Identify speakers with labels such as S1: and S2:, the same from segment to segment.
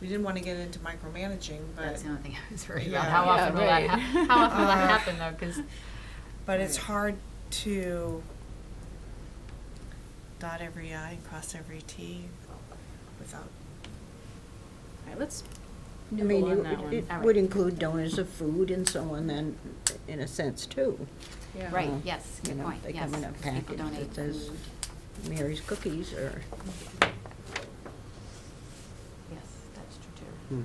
S1: we didn't want to get into micromanaging, but,
S2: That's the only thing I was worried
S1: Yeah.
S2: about, how
S3: Yeah,
S2: often will that,
S3: right.
S2: hap- how often will
S1: Uh,
S2: that happen though, because,
S1: but it's hard to dot every i and cross every t without,
S2: all right, let's
S4: I mean,
S2: noodle on that
S4: it-
S2: one.
S4: it
S2: All
S4: would
S2: right.
S4: include donors of food and so on then, in a sense, too.
S2: Right,
S4: uh,
S2: yes,
S4: you
S2: good
S4: know,
S2: point,
S4: they
S2: yes.
S4: come in a
S2: 'cause
S4: package
S2: People donate
S4: that says-
S2: food,
S4: Mary's Cookies or,
S2: yes, that's true too.
S5: Hmm.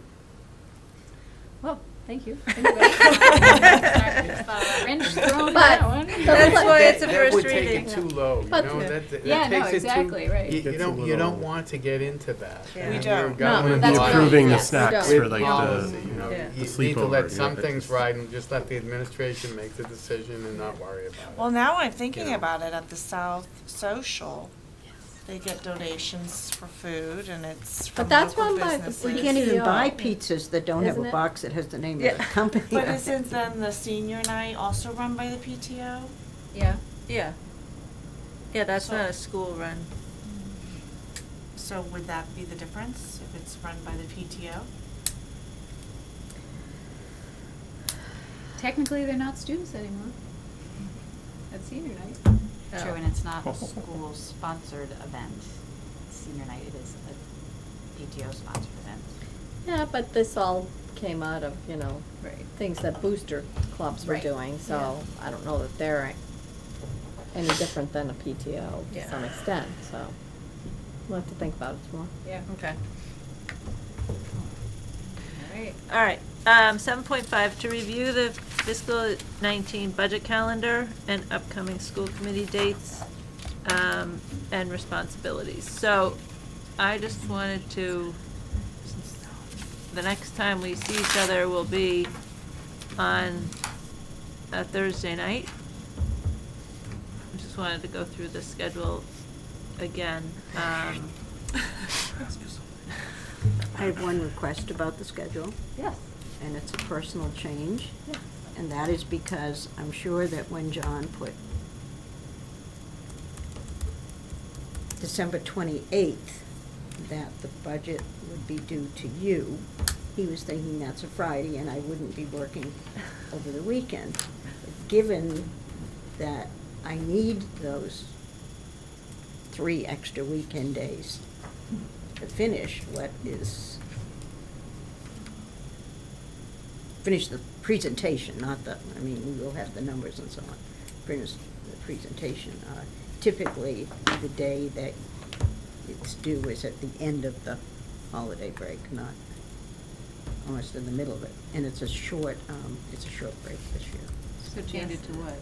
S2: Well, thank you. Uh, Wrench thrown in that one.
S1: That's why it's a first
S5: That
S1: reading.
S5: would take it too low, you
S2: But-
S5: know, that, that
S2: Yeah, no,
S5: takes it too-
S2: exactly, right.
S5: You, you
S6: Gets a
S5: don't, you
S6: little-
S5: don't want to get into that.
S1: Yeah.
S5: I
S1: We
S5: mean,
S1: don't.
S5: you're
S1: No,
S5: going
S2: No,
S6: We'd
S5: in
S6: be
S2: that's
S5: line
S2: right.
S6: approving the
S2: Yes, we
S6: snacks
S4: don't.
S6: for like
S5: Policy, you know,
S6: the,
S1: Yeah.
S5: you
S6: the
S5: need to let
S6: sleepover,
S5: some
S6: yeah.
S5: things ride and just let the administration make the decision and not worry
S1: well,
S5: about it.
S1: now I'm thinking
S5: Yeah.
S1: about it at the South Social. They get donations for food and it's from
S3: But that's
S1: local
S3: run by the
S1: businesses.
S4: you
S3: Like
S4: can't even
S3: CEO.
S4: buy pizzas that don't have
S3: Isn't
S4: a
S3: it?
S4: box that has the name
S1: uh, Yeah.
S4: of the company.
S1: But um,
S4: on it.
S1: isn't then the senior night also run by the PTO?
S2: Yeah,
S7: Yeah. Yeah, that's
S1: So-
S7: not a school-run.
S1: So would that be the difference if it's run by the PTO?
S2: technically, they're not students anymore. That's senior night. True, and it's not a school-sponsored event. Senior night, it is a PTO-sponsored event.
S3: Yeah, but this all came out of, you know,
S2: Right.
S3: things that booster clubs were
S2: Right.
S3: doing, so I don't know that they're any different than a PTO to
S7: Yeah.
S3: some extent, so we'll have to think about it some more.
S2: Yeah.
S7: Okay.
S2: All right.
S7: All right, um, seven point five, to review the fiscal nineteen budget calendar and upcoming school committee dates, um, and responsibilities. So, I just wanted to, since the next time we see each other will be on a Thursday night. I just wanted to go through the schedule again, um.
S4: I have one request about the schedule,
S2: Yes.
S4: and it's a personal change.
S2: Yeah.
S4: And that is because I'm sure that when John put December 28th, that the budget would be due to you, he was thinking that's a Friday and I wouldn't be working over the weekend. Given that I need those three extra weekend days to finish what is finish the presentation, not the, I mean, we will have the numbers and so on. Finish the presentation. Uh, Typically, the day that it's due is at the end of the holiday break, not almost in the middle of it. And it's a short, um, it's a short break this year.
S2: So change it to what?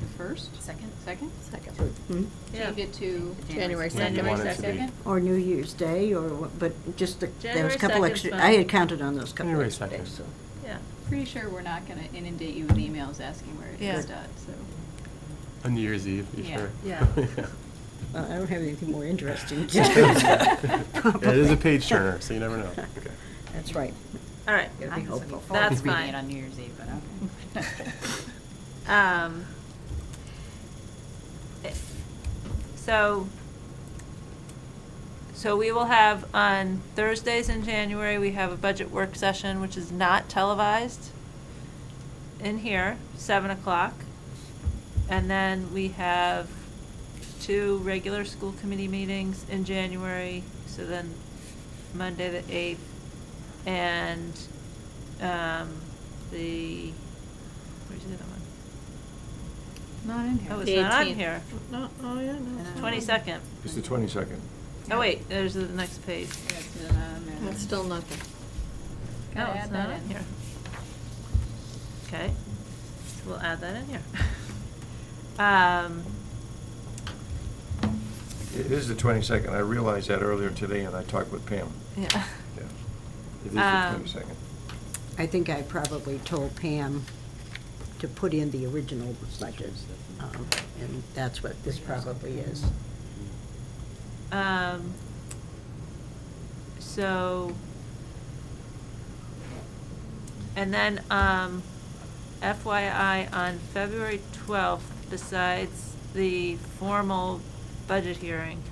S2: The first? Second. Second?
S4: So, hmm?
S7: Yeah.
S2: Change it to?
S3: January
S6: When do you
S3: January
S6: want it to be?
S4: Or New Year's Day, or, what- but just the, there was
S7: January
S4: a couple
S7: 2nd's
S4: extra,
S7: fine.
S4: I had counted on those couple
S6: January
S4: extra
S6: 2nd.
S4: days, so.
S7: Yeah.
S2: Pretty sure we're not gonna inundate you with emails asking where it
S7: Yeah.
S2: is dot, so.
S6: On New Year's Eve, you
S2: Yeah.
S6: sure?
S2: Yeah.
S4: Well, uh, I don't have anything more interesting to do.
S6: Yeah, It is a page turner, so you never know.
S4: That's right.
S7: All right.
S4: It'll
S2: I'm
S4: be
S2: just looking
S4: hopeful.
S2: forward to
S7: That's
S2: reading
S7: fine.
S2: it on New Year's Eve, but okay.
S7: Um, it- so, so we will have on Thursdays in January, we have a budget work session, which is not televised in here, seven o'clock. And then we have two regular school committee meetings in January, so then Monday the eighth and, um, the, where's the other one?
S2: Not in here.
S7: Oh, it's
S2: The
S7: not on
S2: 18th.
S7: here.
S1: No, oh, yeah, no.
S2: it's not.
S7: Twenty-second.
S8: It's the twenty-second.
S7: Oh, wait, there's the next page.
S2: Yeah, it's not on there.
S3: That's still nothing.
S7: No,
S2: Gotta
S7: Oh, it's
S2: add
S7: not
S2: that
S7: on
S2: in.
S7: here. Okay, so we'll add that in here. Um,
S8: It is the twenty-second. I realized that earlier today and I talked with Pam.
S7: yeah.
S8: Yeah. It is
S7: Um,
S8: the twenty-second.
S4: I think I probably told Pam to put in the original budget, um, and that's what this probably is.
S7: Um, so, and then, um, FYI, on February twelfth, besides the formal budget hearing,